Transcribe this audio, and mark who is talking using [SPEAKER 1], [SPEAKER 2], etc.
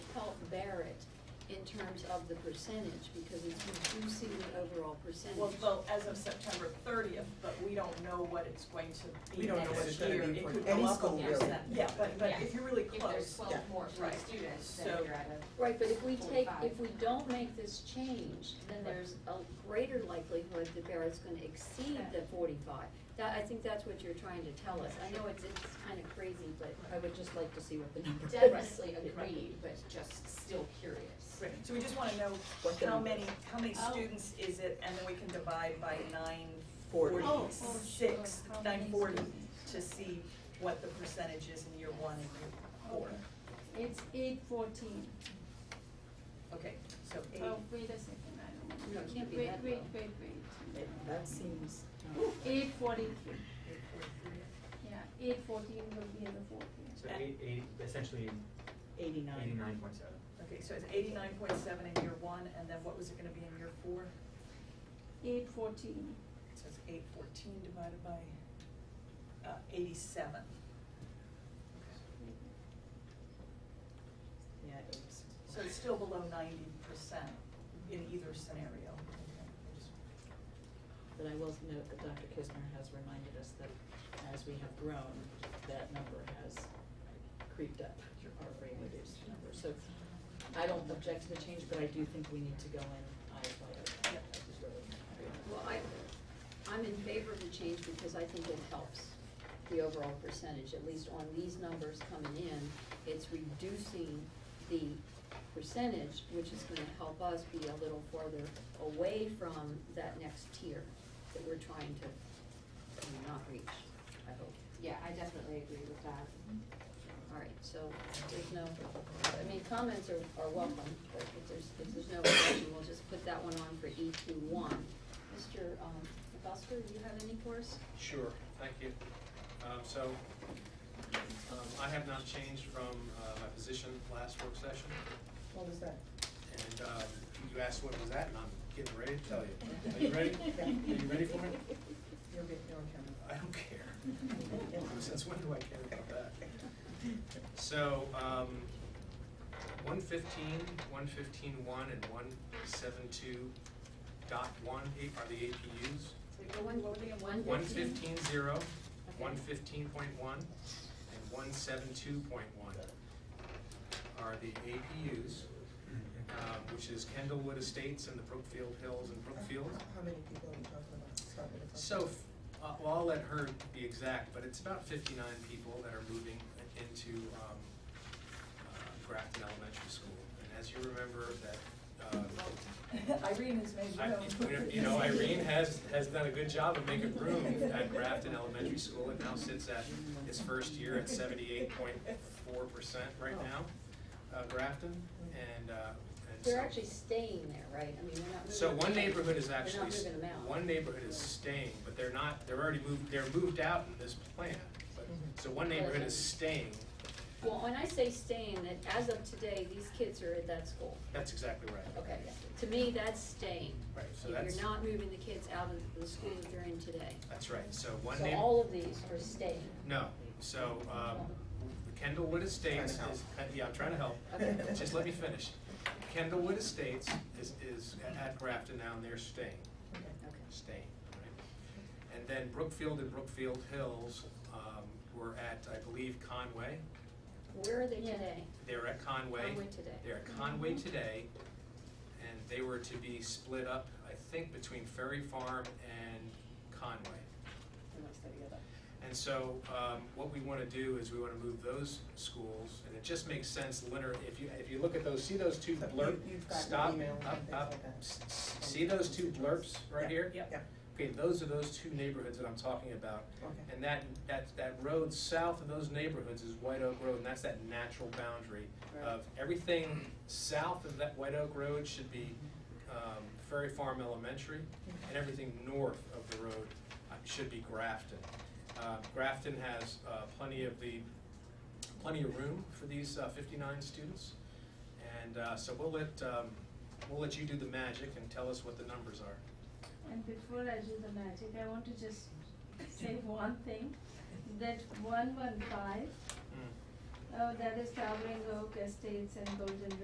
[SPEAKER 1] terms of the percentage, because it's reducing the overall percentage.
[SPEAKER 2] Well, well, as of September thirtieth, but we don't know what it's going to be
[SPEAKER 3] We don't know what
[SPEAKER 2] next
[SPEAKER 3] it's gonna
[SPEAKER 2] year.
[SPEAKER 3] be
[SPEAKER 2] It
[SPEAKER 3] for
[SPEAKER 2] could
[SPEAKER 3] any
[SPEAKER 2] go up a
[SPEAKER 3] school,
[SPEAKER 2] few
[SPEAKER 3] really.
[SPEAKER 2] percent. Yeah, but, but
[SPEAKER 4] Yeah.
[SPEAKER 2] if you're really
[SPEAKER 4] If there's
[SPEAKER 2] close,
[SPEAKER 4] twelve
[SPEAKER 3] yeah.
[SPEAKER 4] more for
[SPEAKER 2] Right.
[SPEAKER 4] the students,
[SPEAKER 2] So-
[SPEAKER 4] then you're at a.
[SPEAKER 1] Right, but if we take,
[SPEAKER 4] 45.
[SPEAKER 1] if we don't make this change, then there's a greater likelihood that Barrett's gonna exceed the forty-five. That, I think that's what you're trying to tell us. I know it's, it's kinda crazy, but I would just like to see what the number is.
[SPEAKER 4] Definitely agreed, but just still curious.
[SPEAKER 2] Right, so we just wanna know
[SPEAKER 3] What the
[SPEAKER 2] how
[SPEAKER 3] number
[SPEAKER 2] many, how many
[SPEAKER 4] Oh.
[SPEAKER 2] students is it, and then we can divide by nine
[SPEAKER 3] Forty.
[SPEAKER 2] forty-six,
[SPEAKER 5] Oh, oh, sure.
[SPEAKER 2] nine forty, to see what the percentage is in year one and year four.
[SPEAKER 5] It's eight fourteen.
[SPEAKER 2] Okay, so
[SPEAKER 5] Oh,
[SPEAKER 2] eight,
[SPEAKER 5] wait a second, I don't know.
[SPEAKER 1] No, it can't be
[SPEAKER 5] Wait,
[SPEAKER 1] that
[SPEAKER 5] wait,
[SPEAKER 1] low.
[SPEAKER 5] wait, wait.
[SPEAKER 3] That seems,
[SPEAKER 5] Eight forty-three, yeah, eight fourteen will be in the fourth year.
[SPEAKER 6] So eight, eight, essentially
[SPEAKER 3] eighty-nine.
[SPEAKER 6] eighty-nine point seven.
[SPEAKER 2] okay, so it's eighty-nine point seven in year one, and then what was it gonna be in year four?
[SPEAKER 5] Eight fourteen,
[SPEAKER 2] So it's eight fourteen divided by, uh, eighty-seven.
[SPEAKER 3] Yeah, it is.
[SPEAKER 2] So it's still below ninety percent in either scenario. Okay, I just-
[SPEAKER 3] But I will note that Dr. Kisner has reminded us that as we have grown, that number has creeped up, our rate reduced number. So I don't object to the change, but I do think we need to go in eyes wide open.
[SPEAKER 2] Yep.
[SPEAKER 3] I just really-
[SPEAKER 1] Well, I, I'm in favor of the change because I think it helps the overall percentage, at least on these numbers coming in. It's reducing the percentage, which is gonna help us be a little farther away from that next tier that we're trying to not reach, I hope.
[SPEAKER 4] Yeah, I definitely agree with that.
[SPEAKER 1] All right, so there's no, I mean, comments are, are welcome, but if there's, if there's no objection, we'll just put that one on for E two one. Mr. um, Busker, do you have any for us?
[SPEAKER 7] Sure, thank you. Um, so, um, I have not changed from, uh, my position last work session,
[SPEAKER 3] What was that?
[SPEAKER 7] and, um, you asked what was that, and I'm getting ready to tell you. Are you ready? Are you ready for it?
[SPEAKER 3] You're good, you're on camera.
[SPEAKER 7] I don't care. Since when do I care about that? So, um, one fifteen, one fifteen one, and one seven two dot one are the APUs. One fifteen zero, one fifteen point one, and one seven two point one are the APUs, um, which is Kendallwood Estates and the Brookfield Hills and Brookfield.
[SPEAKER 8] How many people are we talking about? Start with the-
[SPEAKER 7] So, f- uh, well, I'll let her be exact, but it's about fifty-nine people that are moving into, um, uh, Grafton Elementary School. And as you remember, that, uh,
[SPEAKER 2] Irene has made
[SPEAKER 7] I-
[SPEAKER 2] room.
[SPEAKER 7] You know, Irene has, has done a good job of making room at Grafton Elementary School. It now sits at its first year at seventy-eight point four percent right now, uh, Grafton, and, uh, and so.
[SPEAKER 1] They're actually staying there, right? I mean, they're not moving.
[SPEAKER 7] So one
[SPEAKER 1] away.
[SPEAKER 7] neighborhood is
[SPEAKER 1] They're not
[SPEAKER 7] actually, s-
[SPEAKER 1] moving them out.
[SPEAKER 7] one neighborhood is staying, but they're not, they're already moved, they're moved out in this plan. But- So one neighborhood is staying,
[SPEAKER 1] Well, when I say staying, that as of today, these kids are at that school.
[SPEAKER 7] that's exactly right.
[SPEAKER 1] Okay, to me, that's staying.
[SPEAKER 7] Right, so
[SPEAKER 1] If
[SPEAKER 7] that's,
[SPEAKER 1] You're not moving the kids out of the school that they're in today.
[SPEAKER 7] that's right, so one
[SPEAKER 1] So
[SPEAKER 7] neighborhood.
[SPEAKER 1] all of these are staying.
[SPEAKER 7] No, so, um, Kendallwood Estates is,
[SPEAKER 8] Trying to
[SPEAKER 7] yeah, I'm trying to help,
[SPEAKER 1] Okay.
[SPEAKER 7] just let me finish. Kendallwood Estates is, is at Grafton now, and they're staying,
[SPEAKER 1] Okay.
[SPEAKER 7] staying, right? And then Brookfield and Brookfield Hills, um, were at, I believe, Conway,
[SPEAKER 1] Where are they
[SPEAKER 5] Yeah.
[SPEAKER 1] today?
[SPEAKER 7] they're at Conway.
[SPEAKER 1] Conway today. Mm-hmm.
[SPEAKER 7] They're at Conway today, and they were to be split up, I think, between Ferry Farm and Conway. And so, um, what we wanna do is we wanna move those schools, and it just makes sense, Leonard, if you, if you look at those, see those two
[SPEAKER 8] So you-
[SPEAKER 7] blurb,
[SPEAKER 8] you've got
[SPEAKER 7] stop,
[SPEAKER 8] email and
[SPEAKER 7] up,
[SPEAKER 8] things
[SPEAKER 7] up,
[SPEAKER 8] like that.
[SPEAKER 7] s- s- see those two blurps right here?
[SPEAKER 2] Yep.
[SPEAKER 8] Yeah,
[SPEAKER 7] Okay, those are those two neighborhoods that I'm talking about,
[SPEAKER 8] okay.
[SPEAKER 7] and that, that, that road south of those neighborhoods is White Oak Road, and that's that natural boundary of everything south of that White Oak Road should be, um, Ferry Farm Elementary, and everything north of the road uh, should be Grafton. Uh, Grafton has, uh, plenty of the, plenty of room for these, uh, fifty-nine students, and, uh, so we'll let, um, we'll let you do the magic and tell us what the numbers are.
[SPEAKER 5] and before I do the magic, I want to just say one thing, that one one five, uh,
[SPEAKER 7] Mm.
[SPEAKER 5] oh, that is Towering Oak Estates and Golden